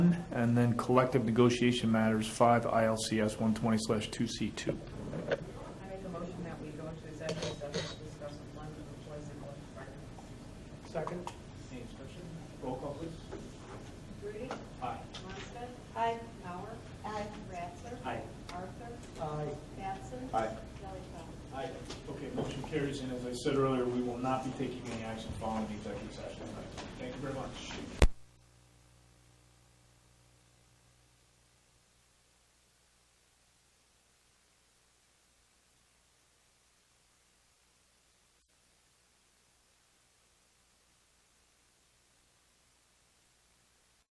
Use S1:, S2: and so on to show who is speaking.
S1: and then collective negotiation matters, five ILCS one twenty two C two.
S2: I make a motion that we go into executive session to discuss employment of employees and collective bargaining.
S3: Second. Any discussion? Roll call, please.
S2: Rudy?
S3: Aye.
S2: Munstead? Aye. Mauer? Aye. Ratzer?
S3: Aye.
S2: Arthur?
S3: Aye.
S2: Batson?
S3: Aye.
S2: Valley-Trail?
S1: Aye. Okay, motion carries, and as I said earlier, we will not be taking any action following the executive session tonight. Thank you very much.